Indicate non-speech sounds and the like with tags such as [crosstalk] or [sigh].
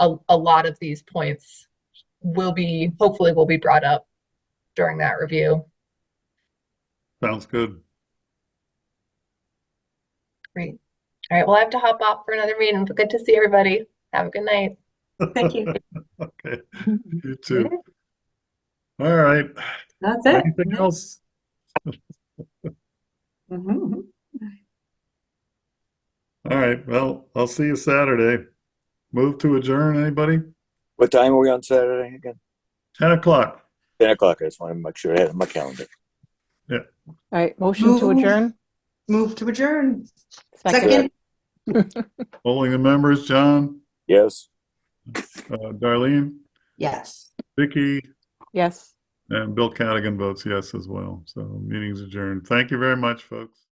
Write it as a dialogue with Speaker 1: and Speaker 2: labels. Speaker 1: a, a lot of these points will be, hopefully will be brought up during that review.
Speaker 2: Sounds good. [laughs]
Speaker 1: Great. All right, well, I have to hop off for another meeting, but good to see everybody. Have a good night.
Speaker 2: [laughs]
Speaker 3: Thank you.
Speaker 2: Okay, you too. All right,
Speaker 3: That's it.
Speaker 2: anything else?
Speaker 3: Mhm.
Speaker 2: All right, well, I'll see you Saturday. Move to adjourn, anybody?
Speaker 4: What time are we on Saturday again?
Speaker 2: 10 o'clock.
Speaker 4: Ten o'clock. I just want to make sure I had it on my calendar.
Speaker 5: All right, motion to
Speaker 3: Move.
Speaker 5: adjourn?
Speaker 3: Move to adjourn.
Speaker 5: Second.
Speaker 3: Second.
Speaker 2: Polling the members, John,
Speaker 4: Yes.
Speaker 2: uh, Darlene,
Speaker 3: Yes.
Speaker 2: Vicky,
Speaker 5: Yes.
Speaker 2: and Bill Cadigan votes yes as well. So meeting's adjourned. Thank you very much, folks.